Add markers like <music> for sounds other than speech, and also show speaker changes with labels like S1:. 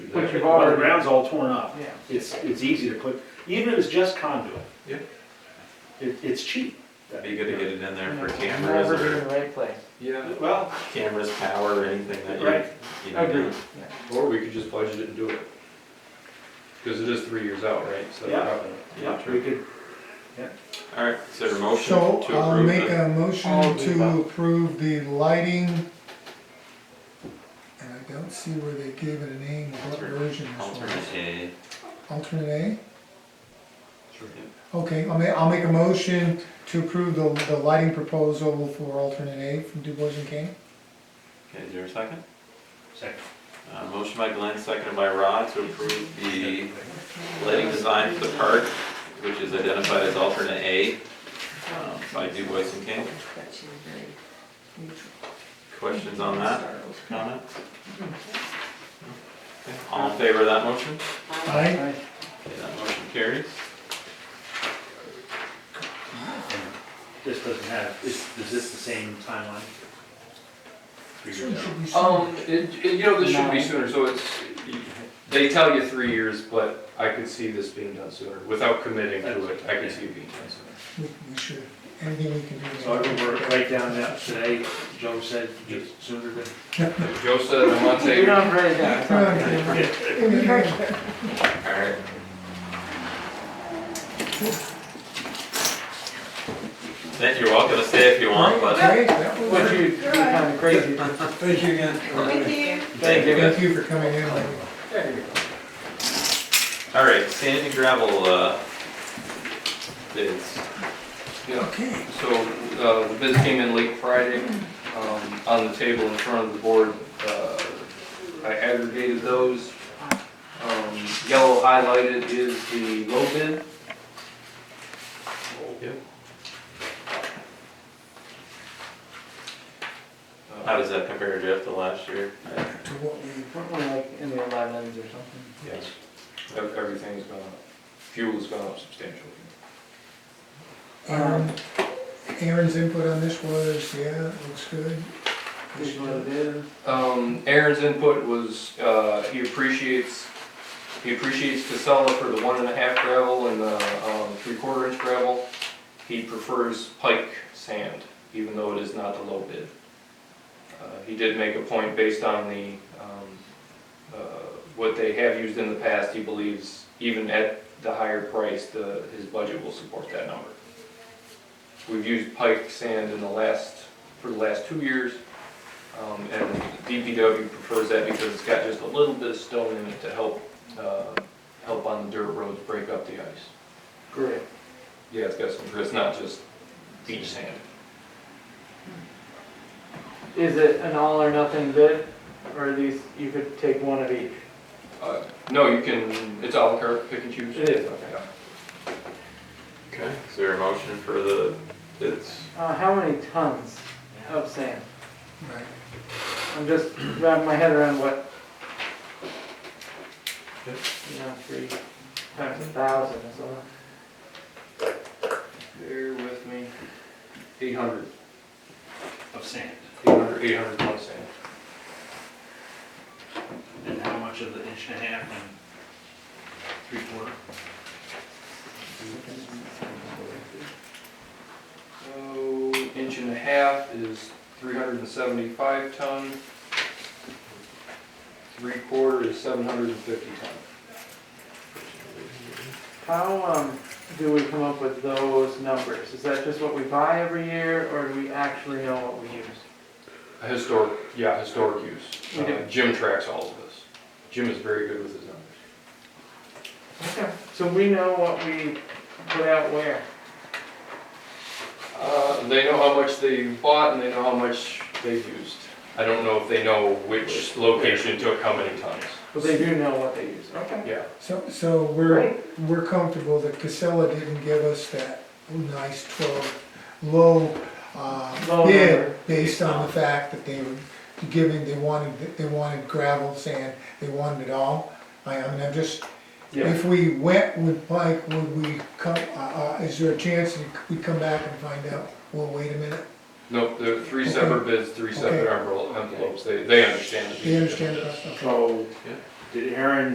S1: But you've
S2: Well, the
S1: already-
S2: ground's all torn up.
S1: Yeah.
S2: It's, it's easy to put, even if it's just conduit.
S3: Yeah.
S2: It, it's cheap.
S4: That'd be good to get it in there for cameras
S1: Never be in
S4: or
S1: the right place.
S3: Yeah,
S2: Well,
S4: cameras, power, or anything that
S2: Right.
S4: you, you know.
S2: Agreed.
S3: or we could just budget it and do it. Because it is three years out, right? So
S2: Yeah.
S3: probably-
S2: yeah, we could,
S4: Alright, so a motion to
S5: So
S4: approve.
S5: I'll make
S4: the-
S5: a
S1: All
S5: motion
S1: of the
S5: to
S1: above.
S5: approve the lighting. And I don't see where they gave it a name, what
S4: Alternate-
S5: version this
S4: Alternate
S5: was.
S4: A.
S5: Alternate
S3: Sure.
S5: A? Okay, I'll ma, I'll make a motion to approve the, the lighting proposal for alternate A from DuBois and King.
S4: Okay, is there a second?
S2: second.
S4: Uh, motion by Glenn, seconded by Rod to approve the lighting design for the park, which is identified as alternate A, um, by DuBois and King.
S6: But she was very neutral.
S4: Questions on that,
S6: Startled.
S4: comments? Okay, All in favor of that motion?
S5: Aye?
S1: Aye.
S4: Okay, that motion carries.
S2: This doesn't have, is, is this the same timeline? Three years out.
S1: Oh.
S3: Um, it, it- you know, this should be
S1: No.
S3: sooner, so it's, they tell you three years, but I could see this being done sooner. Without committing to it, I could see it being done sooner.
S5: We we should, anything we can do.
S2: So I can work right down that today, Joe said, just sooner than.
S3: If Joe said a month,
S1: You're
S3: hey,
S1: not ready yet.
S5: Okay.
S4: Alright. Then you're welcome to stay if you want, but.
S5: Great, that was-
S1: What you, you're kinda
S4: <laughs>
S1: crazy.
S5: Thank you again.
S6: Thank you.
S4: Thank you.
S5: Thank you for coming in.
S4: Alright, sand and gravel, uh, bids.
S3: yeah.
S5: Okay.
S3: So, uh, the bids came in late Friday, um, on the table in front of the board, uh, I aggregated those. Um, yellow highlighted is the low bid.
S4: Yep.
S3: Uh,
S4: How does that compare, Jeff, to last year?
S5: To what we,
S1: Weren't we like in the elevens or something?
S3: Yes. Ev- Everything's gone up. Fuel's gone up substantially.
S5: um, Aaron's input on this was, yeah, it looks good.
S1: Just what it is.
S3: Um, Aaron's input was, uh, he appreciates, he appreciates Casella for the one and a half gravel and the, um, three quarter inch gravel. He prefers pike sand, even though it is not the low bid. Uh, he did make a point based on the, um, uh, what they have used in the past, he believes even at the higher price, the, his budget will support that number. We've used pike sand in the last, for the last two years, um, and DPW prefers that because it's got just a little bit of stone in it to help, uh, help on the dirt roads break up the ice.
S1: Great.
S3: Yeah, it's got some, it's not just beach sand.
S1: Is it an all or nothing bid, or at least you could take one of each?
S3: Uh, No, you can, it's all carte, pick and choose.
S1: It is,
S3: okay.
S4: Okay, is there a motion for the bids?
S1: Uh, how many tons of sand?
S5: Right.
S1: I'm just wrapping my head around what. You know, three times a thousand is a lot.
S3: Bear with me. Eight hundred.
S2: Of sand.
S3: Eight hundred, eight hundred tons sand.
S2: And how much of the inch and a half and three quarter?
S3: So, inch and a half is three hundred and seventy-five ton. Three quarter is seven hundred and fifty ton.
S1: How, um, do we come up with those numbers? Is that just what we buy every year, or do we actually know what we use?
S3: A Historic, yeah, historic use.
S1: Okay.
S3: Uh, Jim tracks all of this. Jim is very good with his numbers.
S1: Okay. So we know what we put out where?
S3: Uh, They know how much they bought and they know how much they've used. I don't know if they know which location took how many tons.
S1: But they do know what they use, okay.
S3: Yeah.
S5: So, so we're, we're comfortable that Casella didn't give us that nice twelve, low, uh,
S1: Low
S5: bid
S1: number.
S5: based on the fact that they were giving, they wanted, they wanted gravel, sand, they wanted it all. I, I mean, I'm just,
S1: Yeah.
S5: if we went with Mike, would we come, uh, uh, is there a chance that we come back and find out, well, wait a minute?
S3: Nope, there are three separate bids, three separate envel- envelopes. They, they understand the.
S5: They understand us, okay.
S1: So, did Aaron